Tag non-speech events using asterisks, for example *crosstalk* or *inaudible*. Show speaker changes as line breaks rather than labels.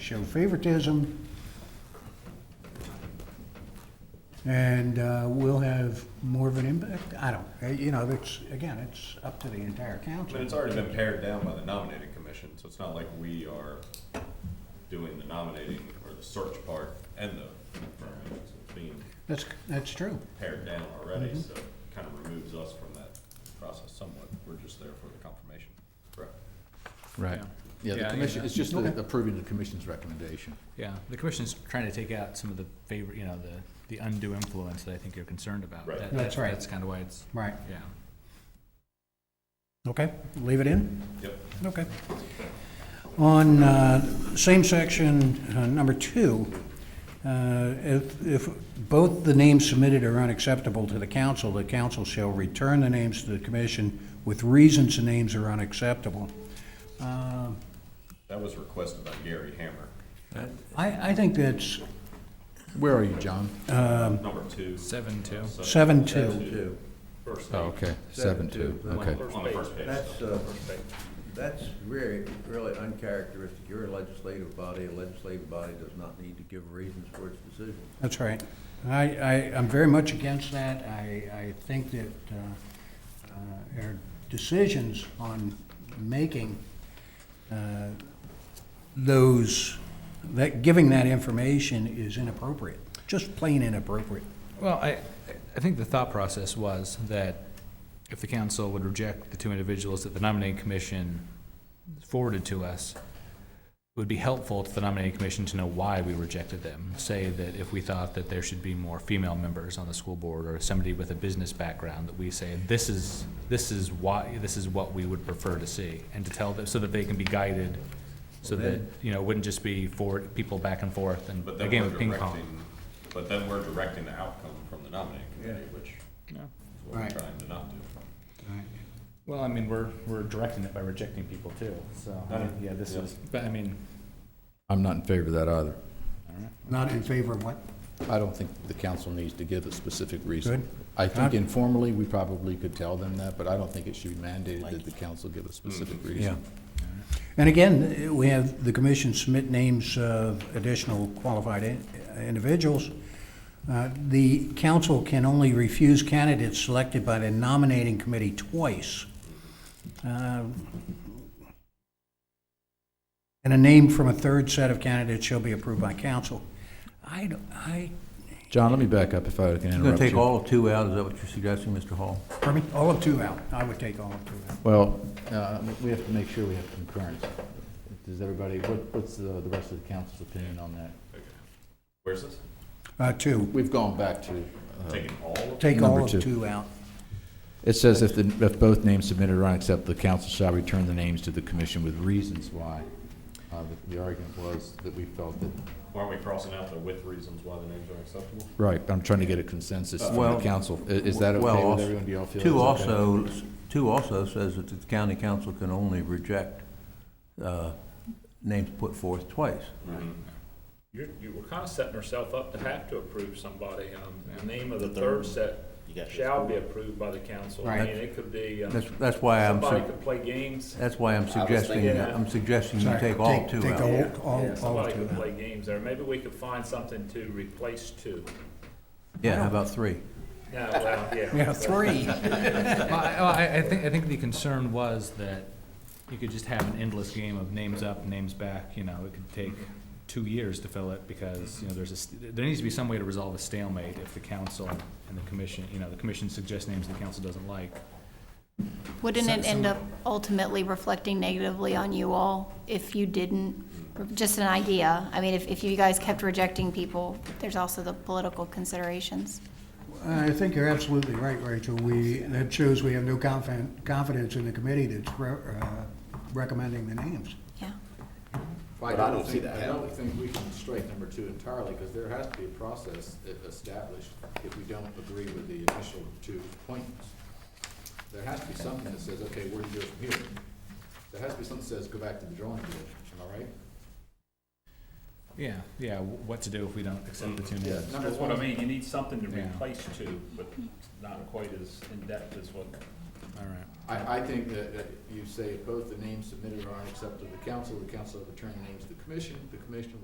show favoritism. And uh, we'll have more of an impact. I don't, uh, you know, it's, again, it's up to the entire council.
But it's already been pared down by the nominating commission, so it's not like we are doing the nominating or the search part and the confirming. So It's being
That's, that's true.
pared down already,
Mm-hmm.
so it kind of removes us from that process somewhat. We're just there for the confirmation. Correct.
Right.
Yeah.
Yeah,
Yeah,
the
I
commission,
get
it's just the-
Okay.
approving the commission's recommendation.
Yeah, the commission's trying to take out some of the favor, you know, the, the undue influence that I think you're concerned about.
Right.
That-
That's
that-
right.
That's kind of why it's,
Right.
yeah.
Okay, leave it in?
Yep.
Okay. On, uh, same section, uh, number two, uh, if, if both the names submitted are unacceptable to the council, the council shall return the names to the commission with reasons the names are unacceptable. Uh,
That was requested by Gary Hammer,
I, I think that's
Where are you, John?
number two.
Seven, two.
Um, seven two.
Two.
First
Oh,
page,
okay, seven two, okay.
on the first page.
That's, uh, that's really, really uncharacteristic. You're a legislative body. A legislative body does not need to give reasons for its decisions.
That's right. I, I, I'm very much against that. I, I think that, uh, uh, our decisions on making, uh, those, that, giving that information is inappropriate, just plain inappropriate.
Well, I, I think the thought process was that if the council would reject the two individuals that the nominating commission forwarded to us, it would be helpful to the nominating commission to know why we rejected them. Say that if we thought that there should be more female members on the school board or somebody with a business background, that we say, this is, this is why, this is what we would prefer to see. And to tell them, so that they can be guided, so that, you know, it wouldn't just be forward, people back and forth and
But
a
then
game
we're
of ping pong.
directing, but then we're directing the outcome from the nominating committee, which is what we're
Right.
trying to not do.
Well, I mean, we're, we're directing it by rejecting people too, so, I mean, yeah, this is, but I mean,
I'm not in favor of that either.
Not in favor of what?
I don't think the council needs to give a specific reason.
Good.
I think informally, we probably could tell them that, but I don't think it should be mandated that the council give
Mm-hmm.
a specific reason.
And again, we have the commission submit names of additional qualified in- individuals. Uh, The council can only refuse candidates selected by the nominating committee twice. Um, And a name from a third set of candidates shall be approved by council. I, don't- I,
John, let me back up if I can
You're going
interrupt
to take
you.
all of two out, is that what you're suggesting, Mr. Hall?
pardon me, all of two out. I would take all of two out.
Well, uh, we have to make sure we have concurrence. Does everybody, what- what's the the rest of the council's opinion on that?
Where's this?
Uh, Two,
We've gone back to
Taking all of
take
Number
all of
two.
two out.
It says if the, if both names submitted are unacceptable, the council shall return the names to the commission with reasons why. Uh, the- The argument was that we felt that,
Why aren't we crossing out the with reasons why the names are acceptable?
right, I'm trying to get a consensus from the
Well,
council. I- Is that
Well,
okay with
also-
everyone? Do y'all feel
Two
that's okay?
also, two also says that the county council can only reject uh, names put forth twice.
You're, you were kind of setting herself up to have to approve somebody. Um, the name of the third set shall be approved by the council. I
Right.
mean, it could be, um,
That's, that's why I'm,
somebody
su-
could play games.
that's why I'm suggesting,
thinking that.
I'm suggesting you
Sorry,
take all
take-
two
take
out.
all-
Yeah,
all-
yeah, Somebody
all two
could
now.
play games there. Maybe we could find something to replace two.
Yeah, how about three?
No, well,
*laughs*
yeah.
Yeah, three.
Well, I, well, I, I think, I think the concern was that you could just have an endless game of names up, names back, you know, it could take two years to fill it because, you know, there's a, st- there needs to be some way to resolve a stalemate if the council and the commission, you know, the commission suggests names the council doesn't like.
Wouldn't
Some-
it
some-
end up ultimately reflecting negatively on you all if you didn't? Just an idea. I mean, if, if you guys kept rejecting people, there's also the political considerations.
I think you're absolutely right, Rachel. We, that shows we have no confidence, confidence in the committee that's re- uh, recommending the names.
Yeah.
But I don't see that. I don't think we can strike number two entirely, because there has to be a process e- established if we don't agree with the initial two appointments. There has to be something that says, okay, where do you go from here? There has to be something that says, go back to the drawing board, am I right?
Yeah, yeah, wh- what to do if we don't accept the two names.
Number
That's what I
one-
mean. You need something to
Yeah.
replace two, but not quite as in-depth as what
All right.
I, I think that, that you say if both the names submitted are unacceptable to the council, the council will return the names to the commission, the commission